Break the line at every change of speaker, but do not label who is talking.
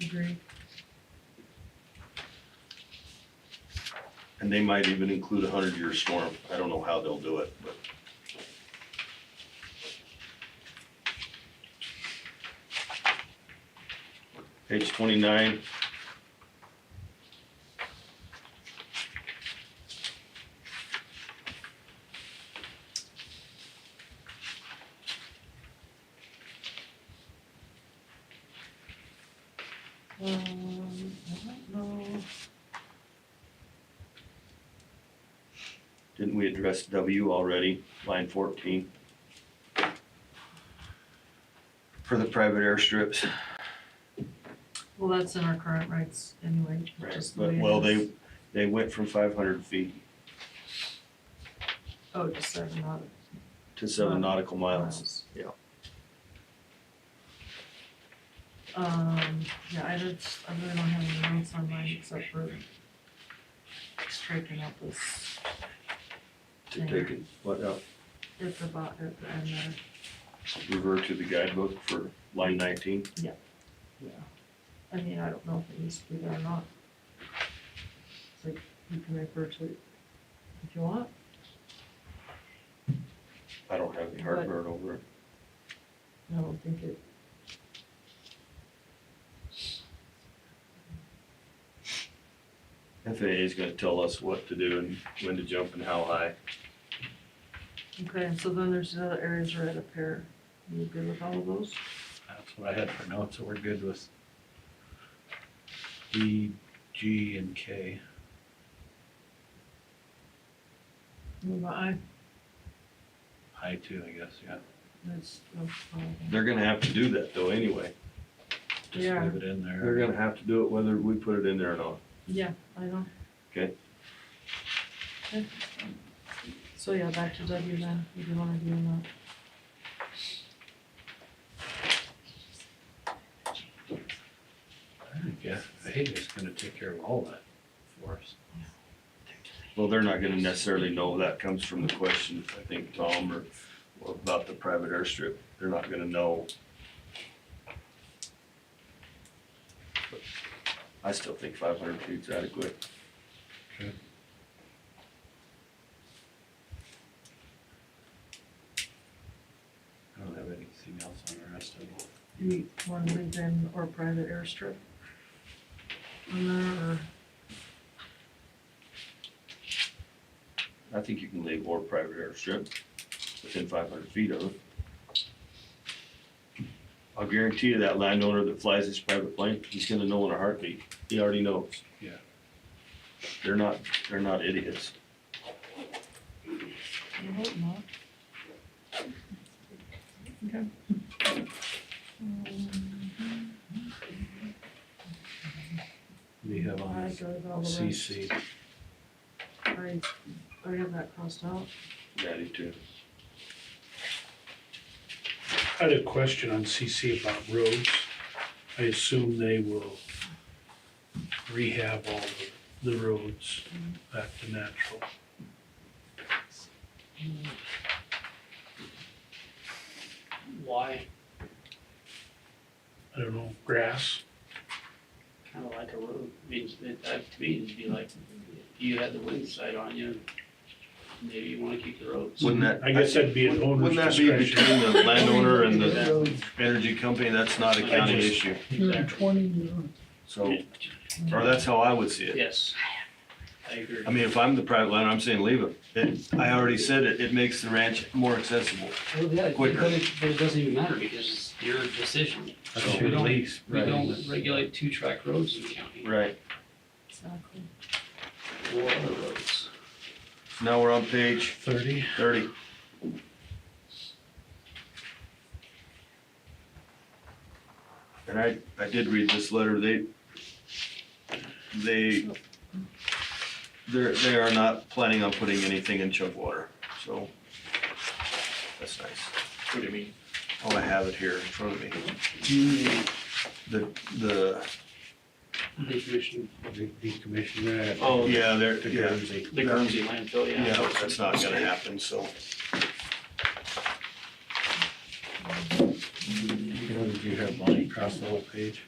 agree.
And they might even include a hundred year storm. I don't know how they'll do it, but. Page twenty-nine.
Um, I don't know.
Didn't we address W already, line fourteen? For the private airstrips.
Well, that's in our current rights anyway. just the
But,
way it
well,
is.
they, they went from five hundred feet
Oh, just seven not
to seven nautical miles.
miles.
yeah.
Um, yeah, I just, I really don't have any notes on mine except for striking out this,
To take it, what, uh,
at the bot, at the end there.
revert to the guidebook for line nineteen?
I mean, I don't know if it needs to be there or not. It's like, you can refer to it if you want.
I don't have any heartburn over it.
I don't think it.
FAA is gonna tell us what to do and when to jump and how high.
Okay, and so then there's the other areas right up here. You good with all of those?
That's what I had for notes, so we're good with D, G, and K.
What about I,
I too, I guess, yeah.
that's, that's all.
They're gonna have to do that though anyway.
Just
Yeah.
leave it in there.
They're gonna have to do it whether we put it in there or not.
Yeah, I know.
Okay.
Okay. So yeah, back to W then, if you wanna do that.
I guess, hey, it's gonna take care of all that for us.
Well, they're not gonna necessarily know that comes from the question, I think, Tom, or or about the private airstrip. They're not gonna know. I still think five hundred feet's adequate.
Okay. I don't have anything else on the rest of it.
Do you wanna leave in or private airstrip? On there, or,
I think you can leave or private airstrip within five hundred feet of it. I'll guarantee you that landowner that flies his private plane, he's gonna know in a heartbeat. He already knows.
Yeah.
They're not, they're not idiots.
I hope not. Okay. Um,
We have on
I
this
go with all the rest.
CC,
I, I have that crossed out.
Daddy too.
I had a question on CC about roads. I assume they will rehab all the, the roads
Mm-hmm.
back to natural.
Why?
I don't know, grass,
Kind of like a road, means that, that to me, it'd be like, if you had the wind side on you, maybe you wanna keep the roads.
Wouldn't that?
I guess that'd be an owner's
Wouldn't that be
discretion.
between the landowner and the
That-
energy company? That's not a county
I just-
issue.
Exactly.
So, or that's how I would see it.
Yes, I agree.
I mean, if I'm the private landowner, I'm saying leave it. it. I already said it, it makes the ranch more accessible.
Well, yeah,
quicker.
But it, but it doesn't even matter because it's your decision.
that's
We
your
don't-
lease.
We don't regulate two track roads in the county,
Right.
Exactly.
or other roads.
Now we're on page
Thirty,
thirty. And I, I did read this letter. They, they, they're, they are not planning on putting anything in Chugwater, so that's nice.
What do you mean?
Oh, I have it here in front of me. The, the,
Decommission,
de- decommission that.
oh, yeah, they're,
To
yeah,
Guernsey.
the Guernsey landfill, yeah.
yeah, that's not gonna happen, so.
You have money across the whole page.